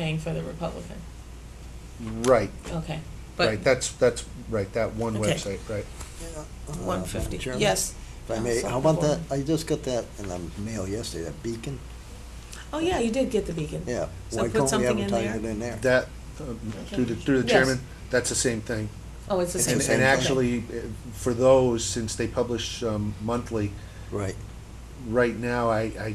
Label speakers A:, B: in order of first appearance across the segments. A: paying for the Republican,
B: Right,
A: okay. But
B: right, that's, that's, right, that one
A: Okay.
B: website, right.
A: one fifty,
C: Madam Chairman,
A: yes.
C: If I may,
A: Selectman
C: how about that,
A: Gordon.
C: I just got that in the mail yesterday, that beacon,
A: Oh, yeah, you did get the beacon.
C: yeah.
A: So put something in
C: Why can't we advertise it
A: there.
C: in there?
B: That, um, through the, through the
A: Yes.
B: chairman, that's the same thing.
A: Oh, it's the
C: It's
A: same.
B: And,
A: thing.
B: and
C: thing.
B: actually, eh, for those, since they publish um, monthly,
C: Right,
B: right now, I, I,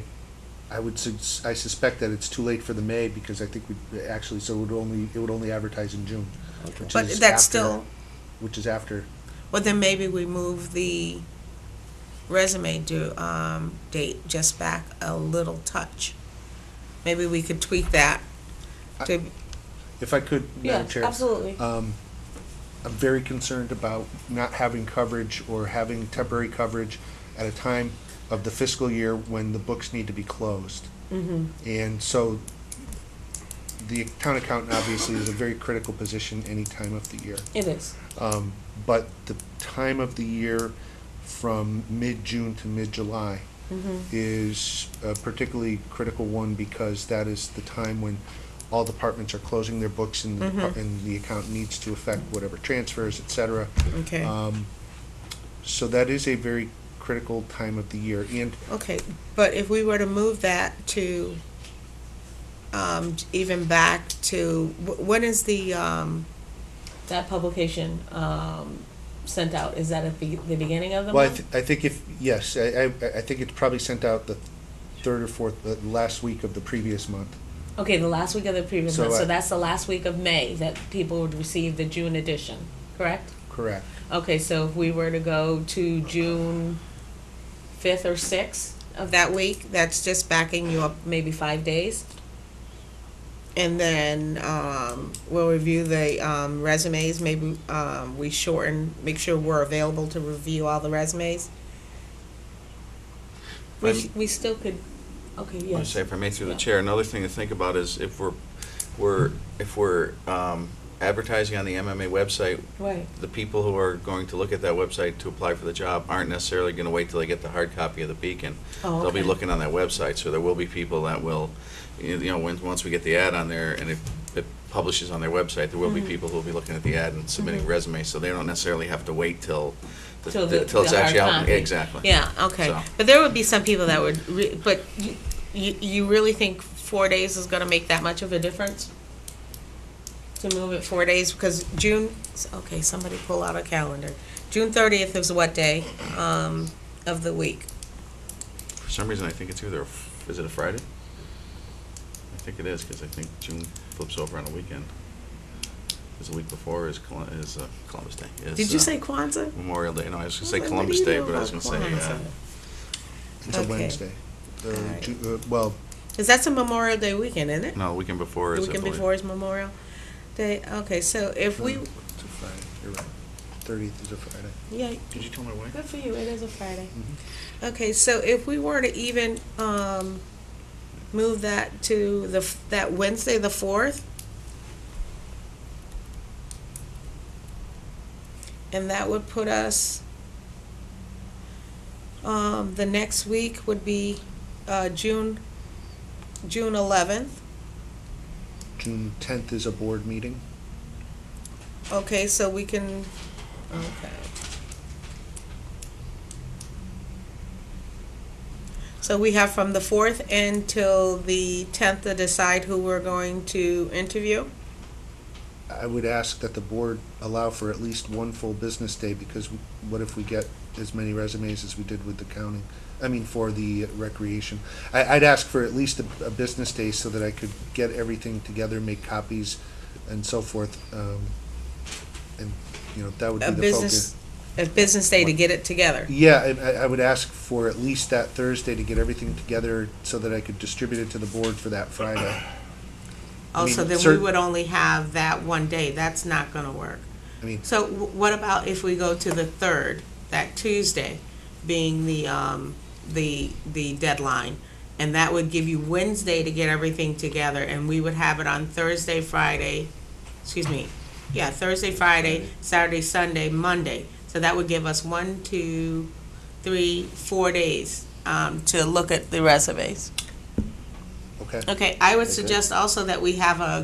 B: I would, sus- I suspect that it's too late for the May, because I think we, actually, so it would only, it would only advertise in June,
C: okay.
B: Which
D: But
B: is
D: that's
B: after-
D: still,
B: which is after.
D: well, then maybe we move the resume due, um, date just back a little touch. Maybe we could tweak that to,
B: If I could, Uh, Madam
A: Yes,
B: Chair.
A: absolutely.
B: Um, I'm very concerned about not having coverage or having temporary coverage at a time of the fiscal year when the books need to be closed.
A: Mhm.
B: And so the town accountant obviously is a very critical position any time of the year.
A: It is,
B: Um, but the time of the year from mid-June to mid-July
A: Mhm.
B: is a particularly critical one because that is the time when all departments are closing their books and the, depart- and the account needs to affect whatever transfers, et cetera.
D: okay,
B: Um, so that is a very critical time of the year. And
D: okay. But if we were to move that to, um, even back to, wh- when is the, um,
A: that publication, um, sent out, is that at the, the beginning of the
B: Well, I,
A: month?
B: th- I think if, yes, I, I, I think it's probably sent out the third or fourth, the last week of the previous month.
A: Okay, the last week of the previous
B: So uh,
A: month,
B: I-
A: so that's the last week of May that people would receive the June edition, correct?
B: Correct.
A: Okay, so if we were to go to June fifth or sixth,
D: of that week? That's just backing you up.
A: maybe five days,
D: And then, um, we'll review the, um, resumes, maybe, um, we shorten, make sure we're available to review all the resumes.
A: we,
E: I'm-
A: sh- we still could, okay,
E: I
A: yes.
E: say, if I may through the
A: Yeah.
E: chair, another thing to think about is if we're, we're, if we're um, advertising on the MMA website,
A: Right,
E: the people who are going to look at that website to apply for the job aren't necessarily going to wait till they get the hard copy of the Beacon.
A: oh, okay.
E: They'll be looking on that website, so there will be people that will, you know, when, once we get the ad on there and it, it publishes on their website, there will be
A: Mhm.
E: people who will be looking at the ad and submitting
A: Mhm.
E: resumes, so they don't necessarily have to wait till, the-
A: Till the-
E: till it's
A: the hard
E: actually out.
A: copy.
E: Exactly.
D: Yeah, okay.
E: So-
D: But there would be some people that would, re- but you, you, you really think four days is gonna make that much of a difference? To move it four days, because June, okay, somebody pull out a calendar. June thirtieth is what day, um, of the week?
E: For some reason, I think it's either, a f- is it a Friday? I think it is, because I think June flips over on a weekend. Because the week before is Col- is uh, Columbus Day. is,
D: Did you
E: uh,
D: say Kwanzaa?
E: Memorial Day, no, I was gonna
D: What
E: say
D: do you
E: Columbus Day,
D: know
E: but I was
D: about
E: gonna say, uh,
D: Kwanzaa?
B: It's a
D: Okay.
B: Wednesday. The
D: All right.
B: Ju- uh, well,
D: Cause that's a Memorial Day weekend, isn't it?
E: no, the weekend before
D: The
E: is, I
D: weekend
E: believe. Mm.
D: before is Memorial Day, okay, so if we,
B: no, it's a Friday. You're right. Thirtieth is a Friday.
D: yeah,
E: Did you tell my wife?
A: Good for you, it is a Friday.
B: Mm-hmm.
D: Okay, so if we were to even, um, move that to the, f- that Wednesday, the fourth? And that would put us, um, the next week would be, uh, June, June eleventh.
B: June tenth is a board meeting.
D: Okay, so we can, okay. So we have from the fourth until the tenth to decide who we're going to interview?
B: I would ask that the board allow for at least one full business day, because what if we get as many resumes as we did with the counting? I mean, for the recreation. I, I'd ask for at least a, a business day so that I could get everything together, make copies and so forth. um, And, you know, that would be
D: A
B: the
D: business,
B: focus.
D: a business day to get it together?
B: Yeah, I- I, I would ask for at least that Thursday to get everything together so that I could distribute it to the board for that Friday. I
D: Oh, so
B: mean,
D: then we
B: cer-
D: would only have that one day, that's not gonna work.
B: I mean,
D: So wh- what about if we go to the third, that Tuesday, being the, um, the, the deadline? And that would give you Wednesday to get everything together, and we would have it on Thursday, Friday, excuse me, yeah, Thursday, Friday, Saturday, Sunday, Monday. So that would give us one, two, three, four days, um, to look at the resumes.
B: okay.
D: Okay, I would suggest also that we have a